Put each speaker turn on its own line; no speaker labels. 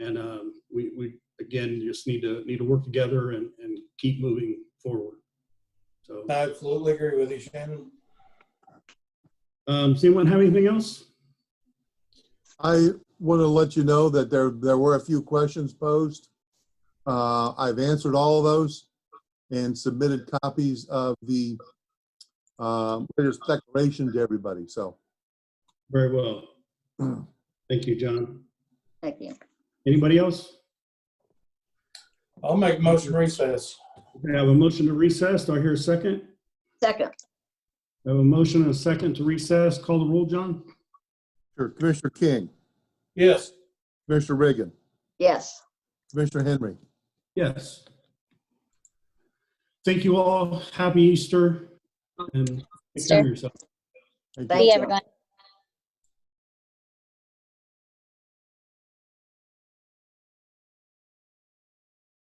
And um, we, we, again, just need to, need to work together and, and keep moving forward. So,
I absolutely agree with you, Shannon.
um, does anyone have anything else?
I want to let you know that there, there were a few questions posed. Uh, I've answered all of those and submitted copies of the um, latest declaration to everybody, so.
Very well. Thank you, John.
Thank you.
Anybody else?
I'll make a motion recess.
I have a motion to recess. Do I hear a second?
Second,
I have a motion and a second to recess. Call the roll, John?
Sure, Commissioner King,
Yes,
Commissioner Reagan,
yes.
Commissioner Henry.
Yes. Thank you all. Happy Easter and take care
Easter.
of yourself.
Thank you.
Thank
See
you.
everyone.